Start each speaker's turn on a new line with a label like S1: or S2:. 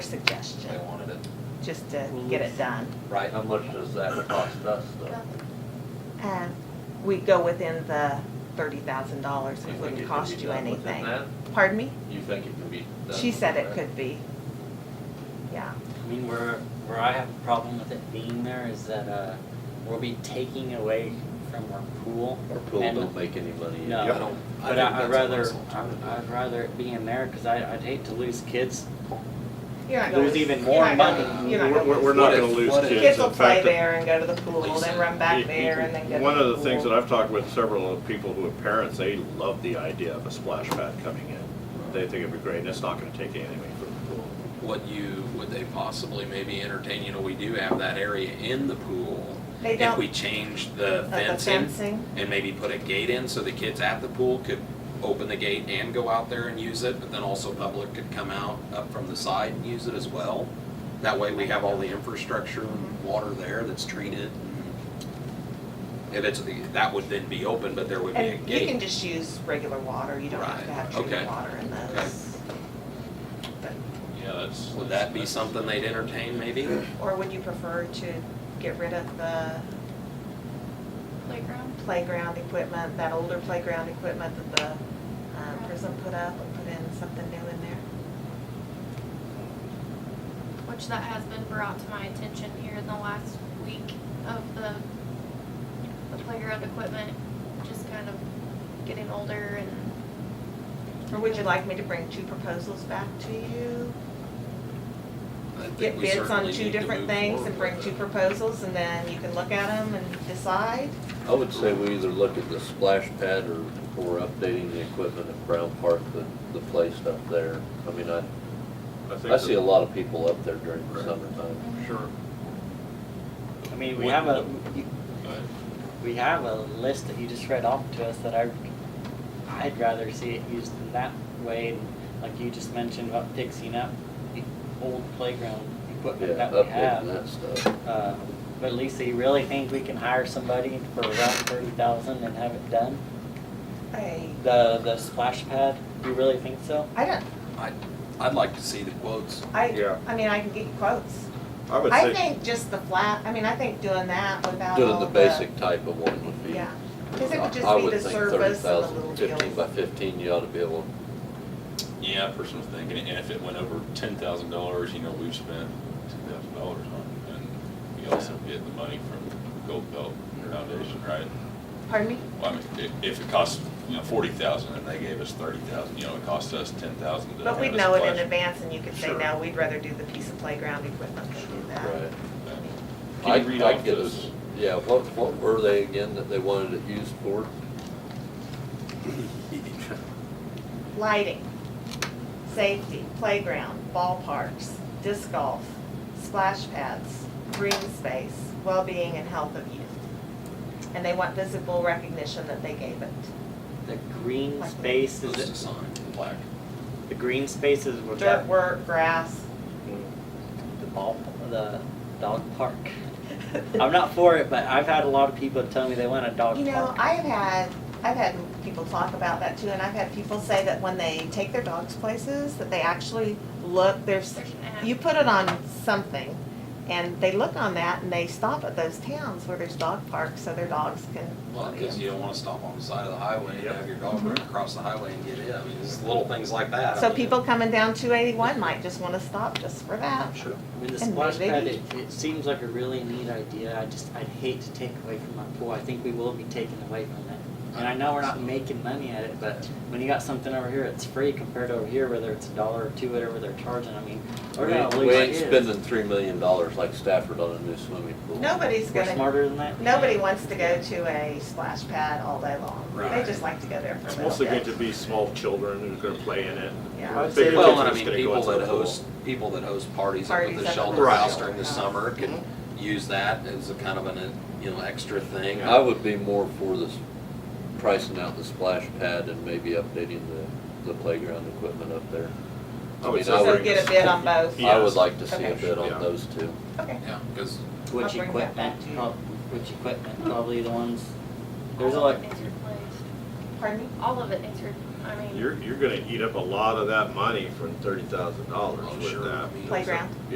S1: just to get it done.
S2: Right, how much does that cost us though?
S1: Um, We go within the thirty thousand dollars,
S2: You
S1: it
S2: think
S1: wouldn't
S2: it could
S1: cost
S2: be
S1: you
S2: done within
S1: anything.
S2: that?
S1: Pardon me?
S2: You think it could be done?
S1: She said
S2: within
S1: it
S2: that?
S1: could be. Yeah,
S3: I mean, where, where I have a problem with it being there is that, uh, we'll be taking away from our pool.
S2: Our pool
S3: And-
S2: don't make any money.
S3: No.
S4: I don't, I
S3: But
S4: think
S3: I-
S4: that's
S3: I'd
S4: an
S3: rather,
S4: excellent
S3: I'd
S4: idea.
S3: I'd rather it be in there, cause I, I'd hate to lose kids.
S1: You're not
S3: There's
S1: gonna-
S3: even
S1: you're
S3: more
S1: not gonna-
S3: money.
S1: You're not
S5: We're,
S1: gonna.
S5: we're we're not
S4: What
S5: gonna
S4: if-
S5: lose
S4: what if-
S5: kids.
S1: Kids will
S5: In fact,
S1: play there and go to the pool,
S4: Lisa,
S1: then run
S5: you-
S1: back
S5: you-
S1: there and then go to the pool.
S5: One of the things that I've talked with several of the people who are parents, they love the idea of a splash pad coming in. They think it'd be great, and it's not gonna take anything away from the pool.
S4: Would you, would they possibly maybe entertain, you know, we do have that area in the pool.
S1: They don't-
S4: If we change the
S1: Of the
S4: fencing
S1: fencing,
S4: and maybe put a gate in so the kids at the pool could open the gate and go out there and use it, but then also public could come out up from the side and use it as well. That way we have all the infrastructure and water there that's treated. If it's, the- that would then be open, but there would be a
S1: and you can
S4: gate.
S1: just use regular water, you don't have to
S4: Right,
S1: have treated
S4: okay.
S1: water in those. But-
S5: Yeah, that's.
S4: Would that be something they'd entertain maybe?
S1: Or would you prefer to get rid of the
S6: playground.
S1: playground equipment, that older playground equipment that the um, prison put up and put in something new in there?
S6: which that has been brought to my attention here in the last week of the, the playground equipment, just kind of getting older and.
S1: Or would you like me to bring two proposals back to you?
S4: I think
S1: Get
S4: we
S1: bids on
S4: certainly need
S1: two
S4: to
S1: different
S4: move
S1: things and
S4: forward
S1: bring
S4: with
S1: two
S4: it.
S1: proposals and then you can look at them and decide?
S2: I would say we either look at the splash pad or, or updating the equipment at Brown Park, the, the place up there. I mean, I, I see a lot of people up there during the summertime.
S5: Sure.
S3: I mean, we
S4: What-
S3: have a, you-
S4: But-
S3: we have a list that you just read off to us that I, I'd rather see it used in that way, like you just mentioned about fixing up the old playground equipment
S2: Yeah,
S3: that we
S2: updating
S3: have.
S2: that stuff.
S3: Uh, But Lisa, you really think we can hire somebody for around thirty thousand and have it done?
S1: I,
S3: The, the splash pad, you really think so?
S1: I don't,
S4: I, I'd like to see the quotes.
S1: I,
S5: Yeah.
S1: I mean, I can get you quotes.
S5: I would
S1: I
S5: say,
S1: think just the flat, I mean, I think doing that without all
S2: Doing the basic type of one would be.
S1: Oh, Yeah, because it would
S2: I- I
S1: just be the
S2: think 30,000,
S1: service and the little
S2: 15
S1: deals.
S2: by fifteen, you ought to be able,
S7: Yeah, person was thinking, and if it went over ten thousand dollars, you know, we've spent two thousand dollars on it. And we also get the money from Gold Belt Foundation, right?
S1: Pardon me?
S7: Well, I mean, i- if it costs, you know, forty thousand and they gave us thirty thousand, you know, it cost us ten thousand to have
S1: But
S7: a
S1: we'd know it in
S7: splash.
S1: advance and you could say,
S7: Sure.
S1: no, we'd rather do the piece of playground equipment than do that.
S2: right.
S7: Can you
S2: I'd-
S7: read
S2: I'd
S7: off
S2: get
S7: those?
S2: us- Yeah, what, what were they again that they wanted it used for?
S1: Lighting, safety, playground, ballparks, disc golf, splash pads, green space, well-being and health of youth. And they want visible recognition that they gave it.
S3: The green space
S4: Those
S3: is,
S4: design plaque.
S3: the green spaces were
S1: Dirt
S3: that,
S1: work, grass.
S3: the ball, the dog park. I'm not for it, but I've had a lot of people tell me they want a dog
S1: You know,
S3: park.
S1: I have had, I've had people talk about that too, and I've had people say that when they take their dogs places, that they actually look, there's,
S6: There's an app.
S1: you put it on something, and they look on that and they stop at those towns where there's dog parks, so their dogs can.
S4: Well, Mm-hmm. because you don't want to stop on the side of the highway and have your dog run across the highway and get in. I mean, it's little things like that. I
S1: So
S4: mean,
S1: people coming down two eighty-one might just wanna stop just for that.
S4: Sure.
S3: I mean, the
S1: And
S3: splash
S1: maybe-
S3: pad, it, it seems like a really neat idea, I just, I'd hate to take away from our pool, I think we will be taking away from that. And I know we're not making money at it, but when you got something over here, it's free compared to over here, whether it's a dollar or two, whatever they're charging, I mean, we're
S2: We
S3: gonna lose
S2: we ain't
S3: kids.
S2: spending three million dollars like Stafford on a new swimming pool.
S1: Nobody's
S3: We're
S1: gonna,
S3: smarter than that.
S1: nobody wants to go to a splash pad all day long. They
S4: Right.
S1: just like to go there for a
S5: it's
S1: little
S5: mostly good
S1: bit.
S5: to be small children who's gonna play in it.
S1: Yeah.
S3: I'd
S5: Bigger
S3: say-
S5: kids
S4: Well,
S5: are
S4: and I
S5: just
S4: mean,
S5: gonna go
S4: people
S5: into the
S4: that
S5: pool.
S4: host, people that host parties up at
S1: Parties
S4: the
S1: up at
S4: shelter
S1: the
S4: house
S1: shelter
S4: during the
S1: house. Mm-hmm.
S4: summer can use that as a kind of an, uh, you know, extra thing.
S2: I would be more for this, pricing out the splash pad and maybe updating the, the playground equipment up there.
S5: I would
S2: mean,
S5: say
S2: I
S1: So
S2: would-
S1: get a bid on both.
S2: I
S5: Yes.
S2: would like to see a
S1: Okay.
S2: bid
S5: Yeah.
S2: on those two.
S1: Okay.
S4: Yeah, because
S3: Which
S1: I'll bring that back
S3: equipment,
S1: to you.
S3: prob- which equipment, probably the ones, there's a
S6: All
S3: lot,
S6: of it is replaced.
S1: Pardon me?
S6: All of it is, re- I mean.
S5: You're, you're gonna eat up a lot of that money for thirty thousand dollars
S4: Oh,
S5: with
S4: sure.
S5: that.
S1: Playground.